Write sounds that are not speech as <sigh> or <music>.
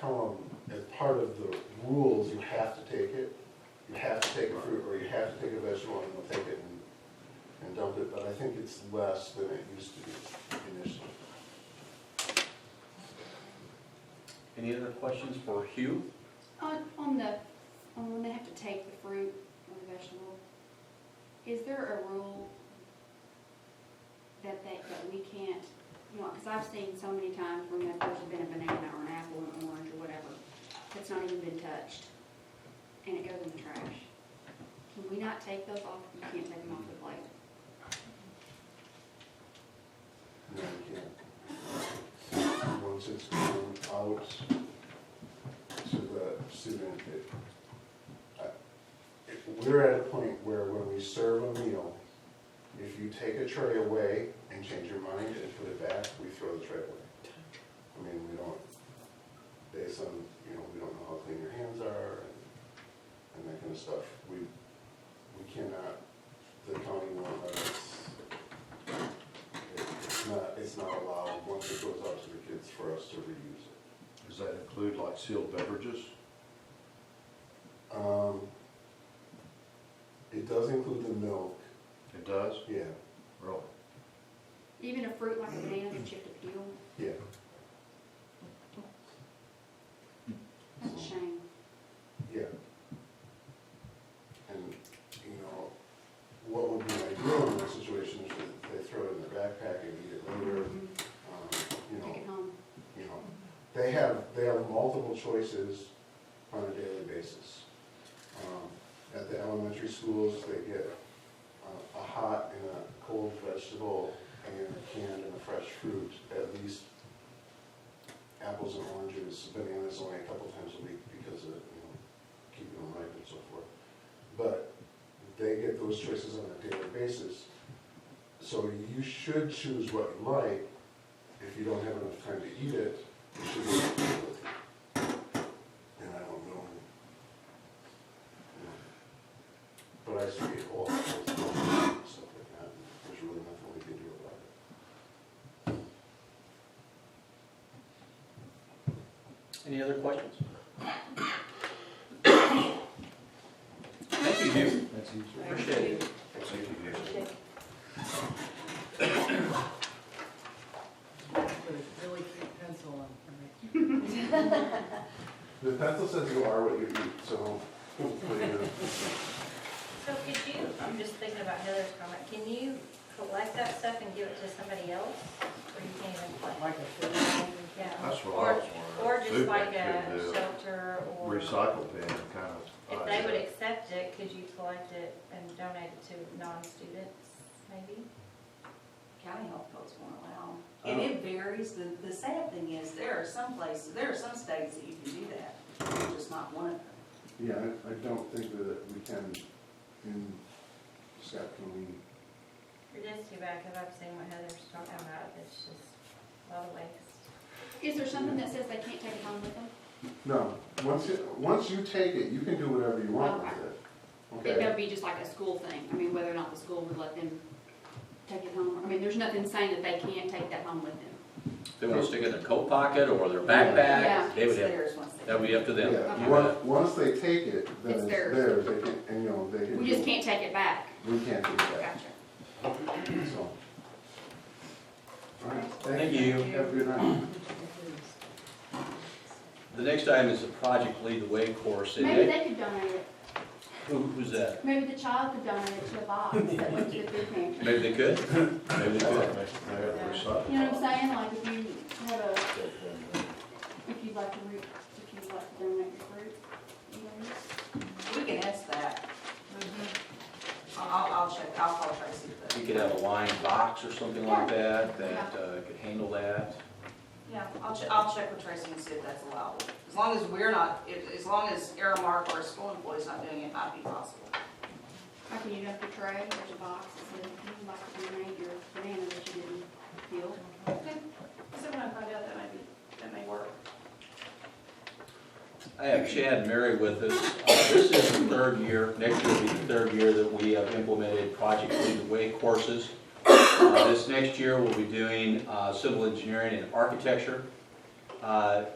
tell them, as part of the rules, you have to take it, you have to take a fruit, or you have to take a vegetable, and they'll take it and, and dump it, but I think it's less than it used to be initially. Any other questions for Hugh? On, on the, on when they have to take the fruit or the vegetable, is there a rule that they, that we can't, you know, because I've seen so many times where there's been a banana or an apple or an orange or whatever, that's not even been touched, and it goes in the trash. Can we not take those off, you can't take them off the plate? No, you can't. Once it's gone out to the student, it, I- if we're at a point where when we serve a meal, if you take a tray away and change your mind and put it back, we throw the tray away. I mean, we don't, based on, you know, we don't know how clean your hands are and, and that kind of stuff. We, we cannot, the county won't let us it's not, it's not allowed, once it goes out to the kids, for us to reuse it. Does that include like sealed beverages? Um, It does include the milk, It does? yeah, Really? Even a fruit like a banana that you have to peel, yeah. that's a shame. Yeah. And, you know, what would be ideal in that situation is that they throw it in their backpack and eat it later, um, Take you know, it home. you know. They have, they have multiple choices on a daily basis. Um, At the elementary schools, they get uh, a hot and a cold vegetable and a canned and a fresh fruit, at least apples and oranges, bananas only a couple times a week because of, you know, keeping them ripe and so forth. But they get those choices on a daily basis. So you should choose what you like, if you don't have enough time to eat it, you should be able to deal with it. And I don't know. you know. But I see it all, it's all stuff like that, and there's really nothing we can do about it. Any other questions? Thank you, Hugh. That's easier. Appreciate it. Thank you, Dave. Put a really thick pencil on for me. The pencil says you are what you eat, so <laughs> hopefully, uh, So could you, I'm just thinking about Heather's comment, can you collect that stuff and give it to somebody else? Or you can't even collect? Like a food pantry. Yeah. That's what I Or, was wondering. or just Food like bank a should do shelter or, if Recycle bin kind of. uh, they would idea. accept it, could you collect it and donate it to non-students, maybe? county health codes won't allow. 'em. I And it varies, the, the sad thing is, there are some places, there are some states that you can do that, it's just not one of them. yeah, I, I don't think that we can, in Scott, can we Or just too bad, because I've seen what Heather's talking about, it's just a lot of waste. Is there something that says they can't take it home with them? No, once you, once you take it, you can do whatever you want with it. It Okay, would be just like a school thing, I mean, whether or not the school would let them take it home, I mean, there's nothing saying that they can't take that home with them. They want to stick it in their coat pocket or their backpack, Yeah. they would It's have, theirs once they- that would be up to them. yeah, You once, bet. once they take it, then it's It's theirs. theirs, they can, and you know, they can. We do- just can't take it back. We can't do that, Gotcha. so. All right, Thank you. Have a good night. The next item is the Project Lead the Way course. and they- Maybe they could donate it, Who, who's that? maybe the child could donate it to a box that went to the food pantry. Maybe they could? Maybe they could. They have recycle. You know what I'm saying, like if you have a, if you'd like to, re- if you'd like to donate your fruit, you know, We can ask that. I'll, I'll- I'll check, I'll call Tracy, but, We could have a lined box or something like that, that uh, could handle that. yeah, I'll check, I'll check with Tracy and see if that's allowable. As long as we're not, as, as long as Aramark or a school employee's not doing it, it might be possible. like when you dump the tray, there's a box that says, if you'd like to donate your banana that you didn't peel. So when I find out, that might be, that may work. I have Chad and Mary with us. Uh, This is the third year, next year will be the third year that we have implemented Project Lead the Way courses. Uh, This next year, we'll be doing uh, civil engineering and architecture. Uh,